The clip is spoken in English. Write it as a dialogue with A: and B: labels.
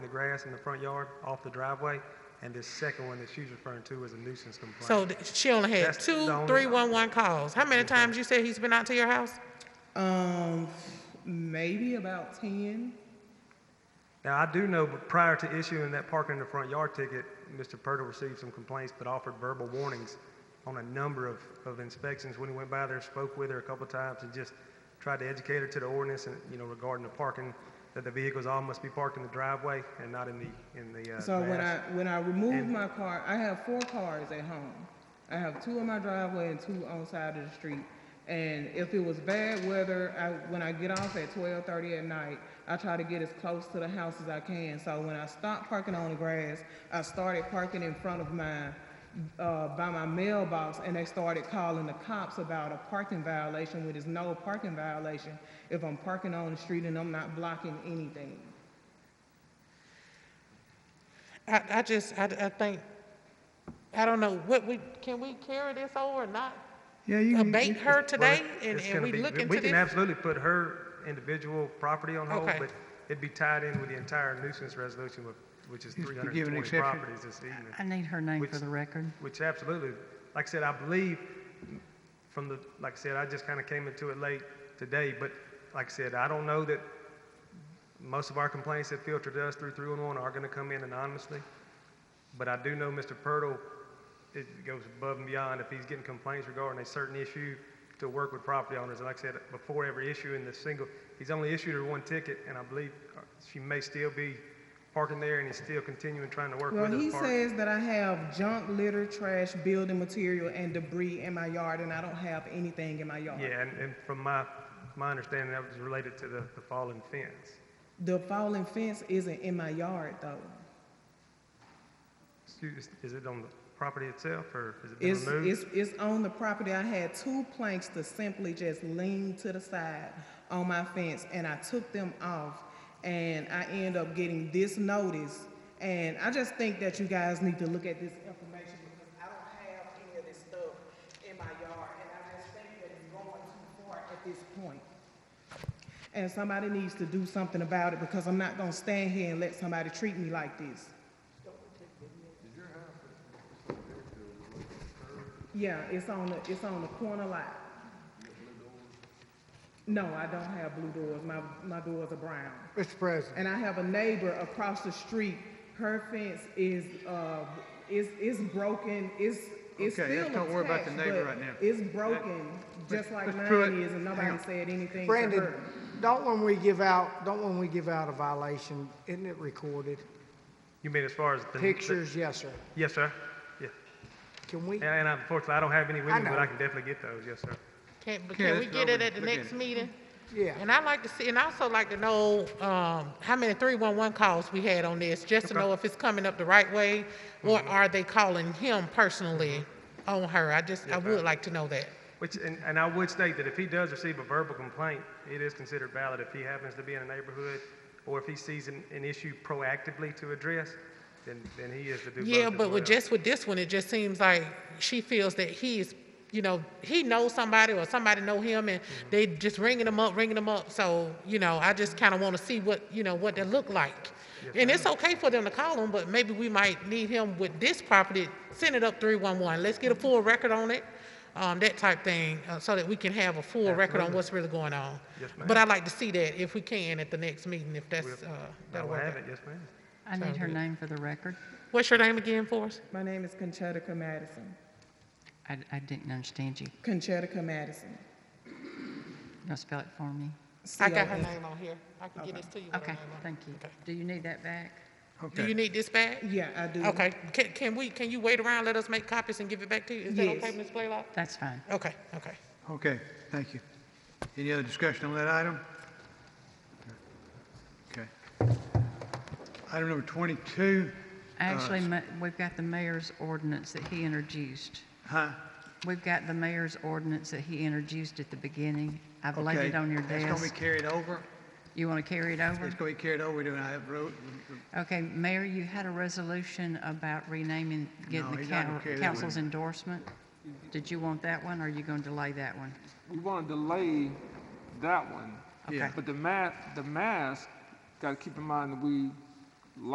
A: grass in the front yard off the driveway, and this second one that she's referring to is a nuisance complaint.
B: So th- she only had
A: That's the
B: two
A: only-
B: 311 calls. How many times you said he's been out to your house?
C: Um, maybe about ten.
A: Now, I do know, but prior to issuing that parking in the front yard ticket, Mr. Purtle received some complaints, but offered verbal warnings on a number of, of inspections when he went by there, spoke with her a couple of times, and just tried to educate her to the ordinance and, you know, regarding the parking, that the vehicles all must be parked in the driveway and not in the, in the, uh,
C: So when I,
A: grass.
C: when I remove
A: And-
C: my car, I have four cars at home. I have two in my driveway and two on side of the street. And if it was bad weather, I, when I get off at twelve thirty at night, I try to get as close to the house as I can. So when I stopped parking on the grass, I started parking in front of mine, uh, by my mailbox, and they started calling the cops about a parking violation, which is no parking violation if I'm parking on the street and I'm not blocking anything.
B: I, I just, I, I think, I don't know, what we, can we carry this over or not?
A: Yeah, you
B: can- abate her
A: it's-
B: today
A: well,
B: and-
A: it's
B: and
A: gonna
B: we
A: be-
B: look
A: We
B: into
A: can
B: this?
A: absolutely put her individual property on hold,
B: Okay.
A: but it'd be tied in with the entire nuisance resolution, with- which is
D: Yes,
A: three
D: we give
A: hundred
D: an
A: and twenty
D: exception.
A: properties this evening.
E: I need her name
A: Which-
E: for the record.
A: Which absolutely, like I said, I believe from the, like I said, I just kind of came into it late today, but like I said, I don't know that most of our complaints that filter to us through 311 are going to come in anonymously, but I do know Mr. Purtle, it goes above and beyond if he's getting complaints regarding a certain issue to work with property owners. And like I said, before every issue in the single, he's only issued her one ticket, and I believe uh, she may still be parking there, and he's still continuing trying to work with her
C: Well,
A: to
C: he
A: park.
C: says that I have junk, litter, trash, building material, and debris in my yard, and I don't have anything in my yard.
A: Yeah, and, and from my, my understanding, that was related to the, the fallen fence.
C: The fallen fence isn't in my yard, though.
A: Excuse, is it on the property itself, or has it been
C: It's,
A: removed?
C: it's, it's on the property. I had two planks to simply just lean to the side on my fence, and I took them off, and I end up getting this notice. And I just think that you guys need to look at this information, because I don't have any of this stuff in my yard, and I just think that it's going too far at this point. And somebody needs to do something about it, because I'm not gonna stand here and let somebody treat me like this. Yeah, it's on the, it's on the corner lot. No, I don't have blue doors. My, my doors are brown.
D: Mr. President,
C: And I have a neighbor across the street. Her fence is, uh, is, is broken. It's, it's still
D: Okay, let's
C: attached,
D: don't worry about the neighbor
C: but
D: right now.
C: It's broken, just like
D: Mr. Pruitt,
C: mine is, and
D: hang
C: nobody
D: on.
C: said anything to
D: Brandon,
C: her.
D: don't when we give out, don't when we give out a violation, isn't it recorded?
A: You mean as far as the? the-
D: Pictures, yes, sir.
A: Yes, sir. Yeah.
D: Can we?
A: And, and unfortunately, I don't have any with me, but I
D: know.
A: can definitely get those, yes, sir.
B: Can, but
D: Yeah,
B: can we
D: that's
B: get
D: what I
B: it
D: was
B: at the
D: looking
B: next
D: at.
B: meeting?
D: Yeah.
B: And I'd like to see, and I also like to know, um, how many three-one-one calls we had on this, just to know if it's coming up the right way,
A: Mm-hmm.
B: or are they calling him personally on her? I just, I would like to know that.
A: Which, and, and I would state that if he does receive a verbal complaint, it is considered valid if he happens to be in a neighborhood, or if he sees an, an issue proactively to address, then, then he is to do both
B: Yeah,
A: as
B: but with
A: well.
B: just with this one, it just seems like she feels that he's, you know, he knows somebody or somebody know him, and
A: Mm-hmm.
B: they just ringing him up, ringing him up. So, you know, I just kind of want to see what, you know, what they look like. And it's okay for them to call him, but maybe we might need him with this property. Send it up three one one. Let's get a
A: Mm-hmm.
B: full record on it, um, that type thing, uh, so that we can have a full record on what's really going on.
A: Yes,
B: But I'd like to see that if we can at the next meeting, if that's uh,
A: I
B: that'll
A: will
B: work.
A: have
B: out.
A: it, yes, ma'am.
E: I need her name for the record.
B: What's your name again for us?
C: My name is Conchetica Madison.
E: I, I didn't understand you.
C: Conchetica Madison.
E: You'll spell it for me?
B: I got her
C: C O N.
B: name on here. I can get this to you. with her
E: Okay,
B: name on it.
E: thank you.
B: Okay.
E: Do you need that back?
B: Do you
D: Okay.
B: need this back?
C: Yeah, I do.
B: Okay, can, can we, can you wait around, let us make copies and give it back to you? Is that
C: Yes.
B: okay, Ms. Blaylock?
E: That's fine.
B: Okay, okay.
D: Okay, thank you. Any other discussion on that item? Okay. Item number 22, Uh,
E: Actually, ma- we've got the mayor's ordinance that he introduced.
D: huh?
E: We've got the mayor's ordinance that he introduced at the beginning. I've laid
D: Okay.
E: it on your
D: It's going to be
E: desk.
D: carried over.
E: You want to carry it over?
D: It's going to be carried over. We do not have road.
E: Okay, Mayor, you had a resolution about renaming, getting
D: No,
E: the
D: he's not
E: coun-
D: gonna carry that
E: council's
D: one.
E: endorsement. Did you want that one, or are you going to delay that one?
F: We want to delay that one.
E: Okay.
D: Yeah.
F: But the mask, the mask, got to keep in mind that we